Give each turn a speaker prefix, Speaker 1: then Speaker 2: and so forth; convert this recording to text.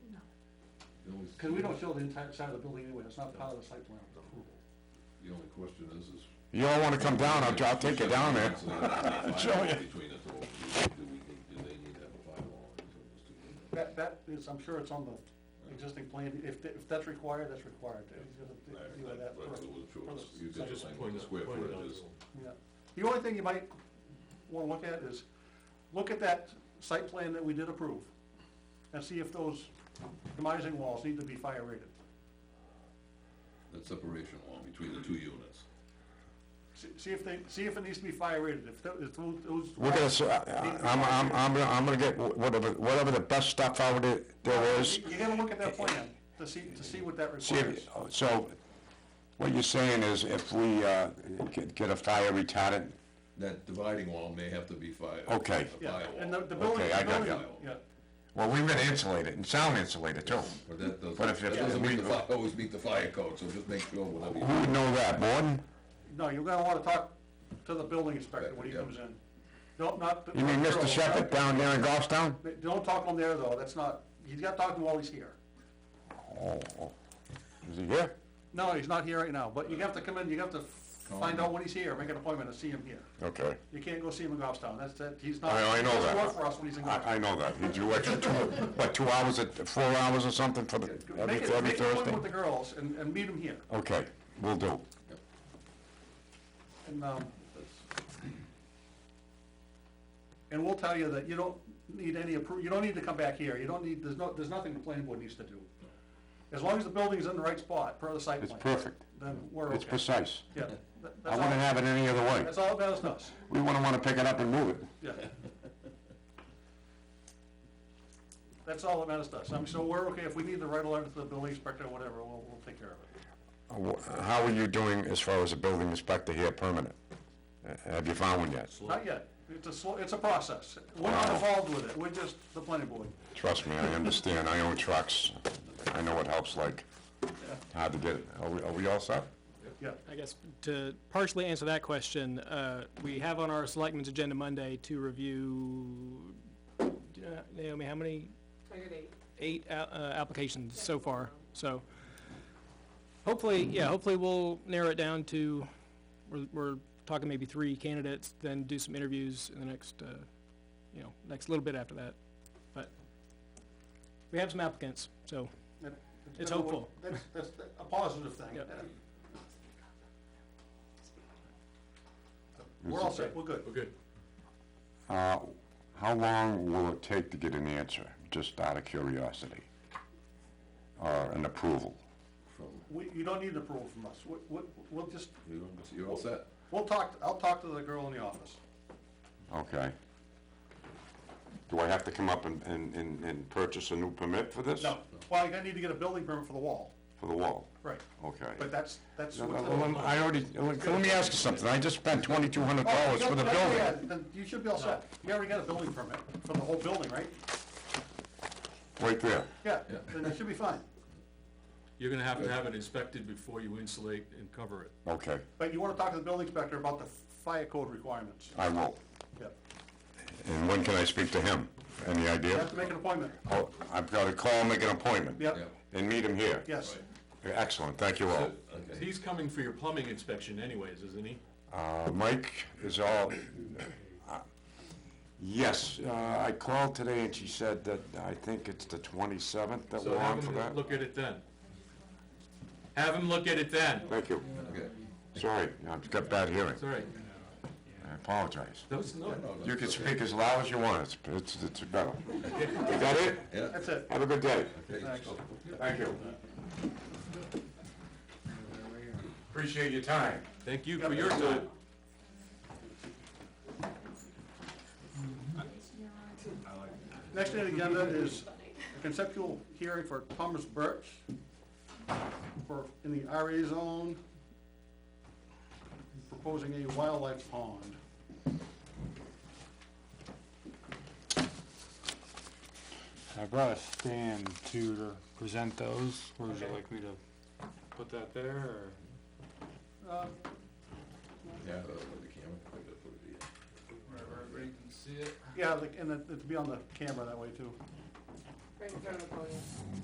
Speaker 1: only-
Speaker 2: Because we don't show the entire side of the building anyway, it's not part of the site plan.
Speaker 1: The only question is, is.
Speaker 3: You all wanna come down, I'll, I'll take you down there. Show you.
Speaker 1: Between the two, of you, do we, need- do they need to have a bylaw? or is it just too late?
Speaker 2: That, that is, I'm sure it's on the existing plan, if, th- if that's required, that's required. It's gonna be like that
Speaker 1: But
Speaker 2: for-
Speaker 1: I wasn't sure,
Speaker 2: for the
Speaker 1: you
Speaker 2: site.
Speaker 1: could just point the square footage is.
Speaker 2: Yeah. The only thing you might wanna look at is, look at that site plan that we did approve, and see if those demising walls need to be fire rated.
Speaker 1: That separation wall between the two units.
Speaker 2: See, see if they, see if it needs to be fire rated, if tho- if those. those
Speaker 3: We're gonna,
Speaker 2: walls-
Speaker 3: s- I- I'm, I'm, I'm, gonna- I'm gonna get wh- whatever, whatever the best stuff out there there is.
Speaker 2: You gotta look at that plan, to see, to see what that
Speaker 3: See,
Speaker 2: requires.
Speaker 3: if- so, what you're saying is if we, uh, get, get a fire retardant,
Speaker 1: That dividing wall may have to be fire.
Speaker 3: Okay.
Speaker 1: a
Speaker 2: Yeah,
Speaker 1: firewall.
Speaker 2: and the, the building,
Speaker 3: Okay, I
Speaker 2: the
Speaker 3: got
Speaker 2: building,
Speaker 1: you.
Speaker 2: yeah,
Speaker 3: well, we're gonna insulate it and sound insulate it too.
Speaker 1: But that doesn't,
Speaker 3: But if-
Speaker 1: that
Speaker 3: if
Speaker 1: doesn't
Speaker 3: we-
Speaker 1: meet the, fi- always meet the fire code, so just make sure whatever
Speaker 3: Who
Speaker 1: you.
Speaker 3: would know that, Morton?
Speaker 2: no, you're gonna wanna talk to the building inspector when he
Speaker 1: Yeah.
Speaker 2: comes in. Don't, not.
Speaker 3: You mean
Speaker 2: not-
Speaker 3: Mr. Shepherd down there in Goffstown?
Speaker 2: Don't talk on there though, that's not, he's got to talk to him while he's here.
Speaker 3: Oh, Is he here?
Speaker 2: No, he's not here right now, but you have to come in, you have to find out when he's here, make an appointment and see him here.
Speaker 3: Okay.
Speaker 2: You can't go see him in Goffstown, that's, that, he's not.
Speaker 3: I- I know
Speaker 2: he doesn't
Speaker 3: that.
Speaker 2: work for us when he's in
Speaker 3: I, I
Speaker 2: Goffstown.
Speaker 3: know that, he drew extra two, what, two hours, at- four hours or something for the, every,
Speaker 2: Make it,
Speaker 3: every
Speaker 2: make an
Speaker 3: Thursday?
Speaker 2: appointment with the girls and, and meet him here.
Speaker 3: Okay, we will do.
Speaker 2: And, um, and we'll tell you that you don't need any appro, you don't need to come back here, you don't need, there's no, there's nothing the planning board needs to do. As long as the building's in the right spot, per the site
Speaker 3: It's
Speaker 2: plan.
Speaker 3: perfect.
Speaker 2: Then we're okay.
Speaker 3: It's precise.
Speaker 2: Yeah, that-
Speaker 3: I
Speaker 2: that's
Speaker 3: wouldn't
Speaker 2: all,
Speaker 3: have it any other way.
Speaker 2: that's all that is us,
Speaker 3: We wouldn't wanna pick it up and move it.
Speaker 2: yeah. That's all that matters to us, I'm sure we're okay, if we need to write a letter to the building inspector or whatever, we'll, we'll take care of it.
Speaker 3: Uh, wh- How are you doing as far as a building inspector here permanent? Uh, Have you found one yet?
Speaker 2: Not yet, it's a, slow- it's a process, we're not involved with it, we're just the planning board.
Speaker 3: Trust me, I understand, I own trucks. I know what help's like. Hard to get it. Are we, are we all set?
Speaker 2: Yeah,
Speaker 4: I guess to partially answer that question, uh, we have on our selectmen's agenda Monday to review, uh, Naomi, how many? Eight a- uh, applications so far, so hopefully, yeah, hopefully we'll narrow it down to, we're, we're talking maybe three candidates, then do some interviews in the next, uh, you know, next little bit after that. But we have some applicants, so
Speaker 2: That- that's
Speaker 4: It's
Speaker 2: been a-
Speaker 4: hopeful.
Speaker 2: That's, that's a positive thing.
Speaker 4: Yep.
Speaker 2: We're all set, we're good.
Speaker 5: Okay.
Speaker 3: Uh, How long will it take to get an answer, just out of curiosity? Or an approval?
Speaker 1: From,
Speaker 2: We, you don't need approval from us, we, we, we'll just,
Speaker 1: you, you're all set.
Speaker 2: we'll talk, I'll talk to the girl in the office.
Speaker 3: Okay. Do I have to come up and, and, and and purchase a new permit for this?
Speaker 2: No, well, you're gonna need to get a building permit for the wall,
Speaker 3: For the wall?
Speaker 2: right,
Speaker 3: Okay.
Speaker 2: but that's, that's.
Speaker 3: No,
Speaker 2: what
Speaker 3: no,
Speaker 2: the-
Speaker 3: well, I already, let let me ask you something, I just spent twenty-two hundred
Speaker 2: Oh,
Speaker 3: dollars for the
Speaker 2: yeah, yeah, yeah,
Speaker 3: building.
Speaker 2: Then you should be all set, you already got a building permit for the whole building, right?
Speaker 3: Right there.
Speaker 2: Yeah, then it should be fine,
Speaker 5: You're gonna have to have it inspected before you insulate and cover it.
Speaker 3: Okay,
Speaker 2: but you wanna talk to the building inspector about the fire code requirements,
Speaker 3: I will.
Speaker 2: yeah,
Speaker 3: And when can I speak to him? Any
Speaker 2: you
Speaker 3: idea?
Speaker 2: have to make an appointment,
Speaker 3: Oh, I've got to call, make an appointment.
Speaker 2: yeah,
Speaker 1: Yeah.
Speaker 3: And meet him here.
Speaker 2: yes.
Speaker 3: Excellent, thank you all.
Speaker 1: Okay.
Speaker 5: He's coming for your plumbing inspection anyways, isn't he?
Speaker 3: Uh, Mike is all, uh, yes, uh, I called today and she said that I think it's the twenty-seventh that
Speaker 5: So
Speaker 3: we're on
Speaker 5: have
Speaker 3: for that.
Speaker 5: him look at it then. Have him look at it then.
Speaker 3: Thank you.
Speaker 1: Okay.
Speaker 3: Sorry, I've got bad hearing.
Speaker 5: Sorry.
Speaker 3: I apologize.
Speaker 5: Those, no,
Speaker 1: No, that's
Speaker 3: You can
Speaker 1: okay.
Speaker 3: speak as loud as you want, it's, it's, it's better. Is that it?
Speaker 1: Yeah.
Speaker 2: That's it.
Speaker 3: Have a good day.
Speaker 1: Okay,
Speaker 2: Thanks.
Speaker 1: so-
Speaker 3: Thank you. Appreciate your time.
Speaker 5: thank you for your time.
Speaker 2: Next on the agenda is a conceptual hearing for Thomas Birch for, in the RA zone, proposing a wildlife pond.
Speaker 6: I brought a stand to present those. Or would you like me to put that there or?
Speaker 2: Uh,
Speaker 1: Yeah, uh, with the camera, I think that's what it is.
Speaker 2: Yeah, like, and it- it'd be on the camera that way too.
Speaker 7: Right in front of the podium.